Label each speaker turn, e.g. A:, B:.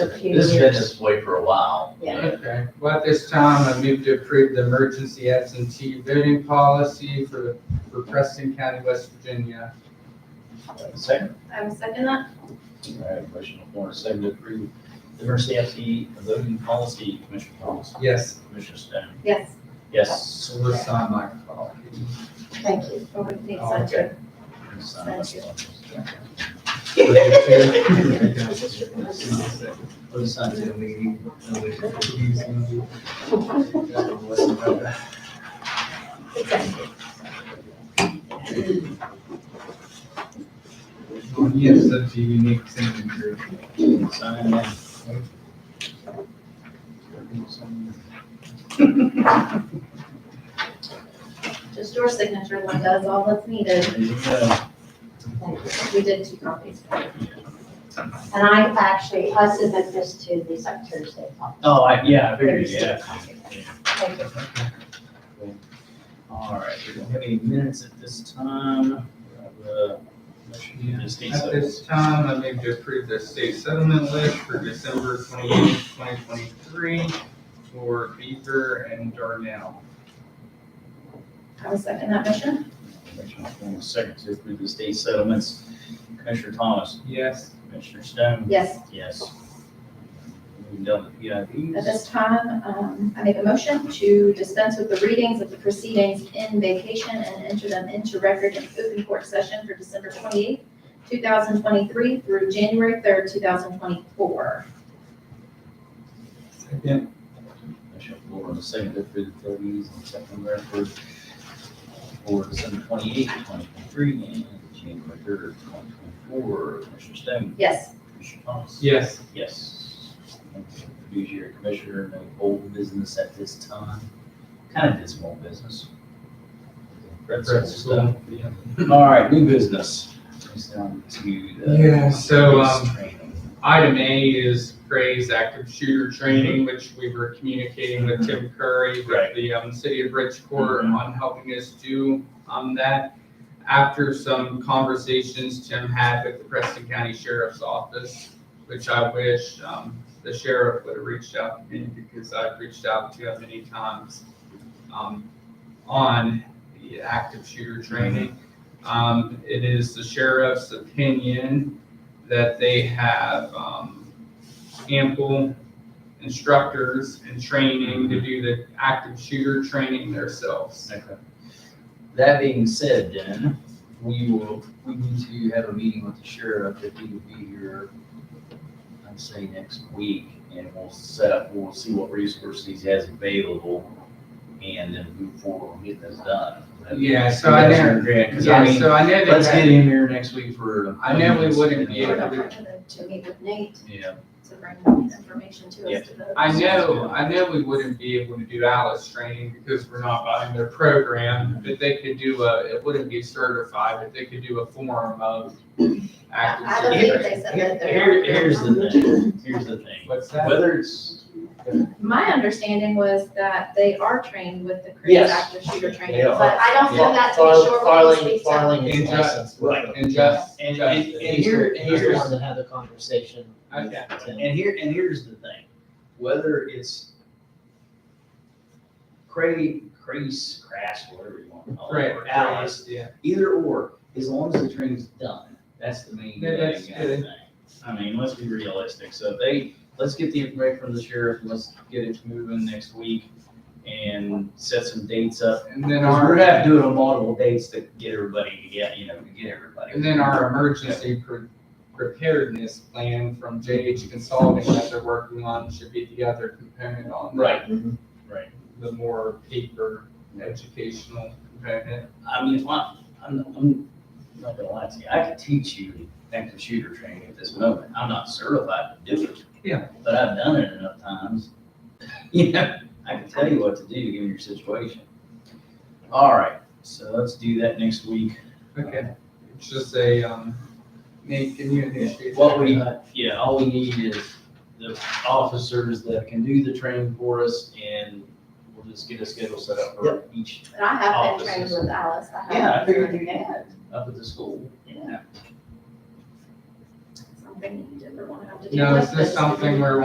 A: a few
B: This has been
A: years.
B: this way for a while.
A: Yeah.
C: Okay, well, at this time, I move to approve the emergency absentee voting policy for, for Preston County, West Virginia.
B: Second,
D: I will second that.
B: all right, motion on the floor, second to approve the diversity absentee voting policy, Commissioner Thomas,
C: Yes,
B: Commissioner Stone.
D: Yes,
B: Yes.
C: so we're signed my call.
A: Thank you.
D: or we need
C: Oh,
D: such a.
B: Sign it. Put this on to me.
C: Yes, such a unique signature.
B: Sign it.
D: Just your signature, one does all that's needed.
B: There you go.
D: Thank you. We did two copies.
A: And I actually, I submit this to the Secretary of State's office.
B: Oh, I, yeah, I figured,
A: Thursday.
B: yeah.
A: Thank you.
B: All right, we don't have any minutes at this time. We have a motion to the state
C: At
B: settlement.
C: this time, I move to approve the state settlement list for December twenty-eighth, twenty twenty-three for Beaver and Darnell.
D: I will second that motion.
B: Motion on the floor, Second to approve the state settlements. Commissioner Thomas,
C: Yes,
B: Commissioner Stone,
D: Yes,
B: yes. Moving down to
D: at
B: PIBs.
D: this time, um, I make a motion to dispense with the readings of the proceedings in vacation and enter them into record in open court session for December twenty-eighth, two thousand twenty-three through January third, two thousand twenty-four.
C: second,
B: Motion on the floor, second to approve the PIBs and settlement record for December twenty-eighth, twenty twenty-three and January third, twenty twenty-four. Commissioner Stone,
D: Yes,
B: Commissioner Thomas.
C: yes,
B: Yes. Fiduciary commissioner, no old business at this time. Kind of dismal business. Red
C: Brett's
B: stuff.
C: school.
B: All right, new business. It's down to the.
C: Yeah, so,
B: police
C: um,
B: training.
C: Item A is Gray's active shooter training, which we were communicating with Tim Curry
B: Right.
C: with the um, city of Bridgeport
B: Mhm.
C: on helping us do um, that. After some conversations Tim had with the Preston County Sheriff's Office, which I wish um, the sheriff would have reached out to me because I've reached out to him many times um, on the active shooter training. Um, It is the sheriff's opinion that they have um, ample instructors and training to do the active shooter training themselves.
B: Okay. That being said, then, we will, we need to have a meeting with the sheriff if he would be here, I'd say next week, and we'll set up, we'll see what resources he has available, and then move forward on getting this done.
C: Yeah, so I know,
B: Because I
C: yeah,
B: mean,
C: so I know
B: let's
C: that,
B: get him here next week for.
C: I know we wouldn't be
D: we're
C: able
D: going to meet with Nate
B: Yeah,
D: to bring information to
B: Yeah.
D: us. to the-
C: I know, I know we wouldn't be able to do Alice training because we're not buying their program, but they could do a, it wouldn't be certified, but they could do a form of active
D: I I
C: shooter.
D: believe
C: training.
D: they said
B: Here-
D: that they're.
B: here- here's the thing, here's the thing,
C: What's that?
B: whether it's,
D: My understanding was that they are trained with the Korean
E: Yes.
D: active shooter training,
B: They are.
D: but I don't know
E: Yeah,
D: that to be sure when
E: Farley-
D: we speak to them.
E: Farley is
C: And
E: licensed.
B: right,
C: And just,
B: and,
C: just-
B: and, and
E: He's
B: here,
E: the-
B: and
E: He's the
B: here's.
E: one that had the conversation. with
C: Okay.
E: Tim.
B: And here, and here's the thing, whether it's Cray, Crease, Crass, whatever you want to call it,
C: right,
B: or Alice,
C: yeah.
B: either or, as long as the training's done, that's the main
C: Yeah,
B: thing.
C: that's
B: I think. I mean, let's be realistic, so they, let's get the information from the sheriff, let's get it moving next week and set some dates up.
C: And then
B: Because
C: our.
B: we're gonna have to do it on multiple dates to get everybody to get, you know, to get everybody.
C: And then our emergency pre- preparedness plan from JH Consulting that they're working on should be the other component on. that,
B: Right, right.
C: The more paper educational component.
B: I mean, if I, I'm, I'm not gonna lie to you, I could teach you active shooter training at this moment. I'm not certified to do it.
C: Yeah.
B: But I've done it enough times. You know, I can tell you what to do given your situation. All right, so let's do that next week.
C: Okay. It's just a, um, Nate, can you initiate?
B: What
C: that?
B: we, yeah, all we need is the officers that can do the training for us and we'll just get a schedule set up for each.
D: But I have been trained
B: Offices.
D: with Alice, I have.
B: Yeah, I figured you had up at the school. Yeah.
D: So
F: they need to, or want to have to do.
D: No,
F: with
D: is this something where